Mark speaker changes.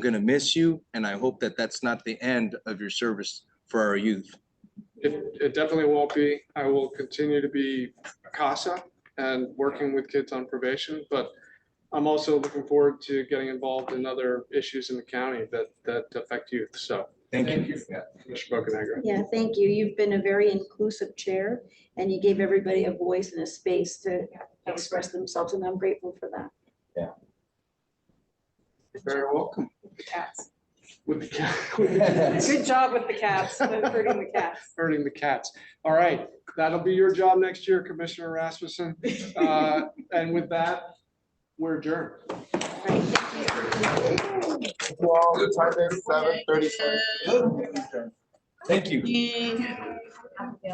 Speaker 1: going to miss you, and I hope that that's not the end of your service for our youth.
Speaker 2: It, it definitely won't be. I will continue to be a CASA and working with kids on probation, but I'm also looking forward to getting involved in other issues in the county that, that affect youth. So,
Speaker 1: Thank you.
Speaker 2: for that, Mr. Bocanegra.
Speaker 3: Yeah, thank you. You've been a very inclusive chair and you gave everybody a voice and a space to express themselves and I'm grateful for that.
Speaker 2: Very welcome.
Speaker 4: Cats.
Speaker 2: With the cat, with the cats,
Speaker 4: Good job with the cats, with hurting the cats.
Speaker 2: hurting the cats. All right, that'll be your job next year, Commissioner Rasmussen. Uh, And with that, we're adjourned.
Speaker 3: Right, thank you.
Speaker 5: Well, the time is seven thirty-seven.
Speaker 1: Thank you.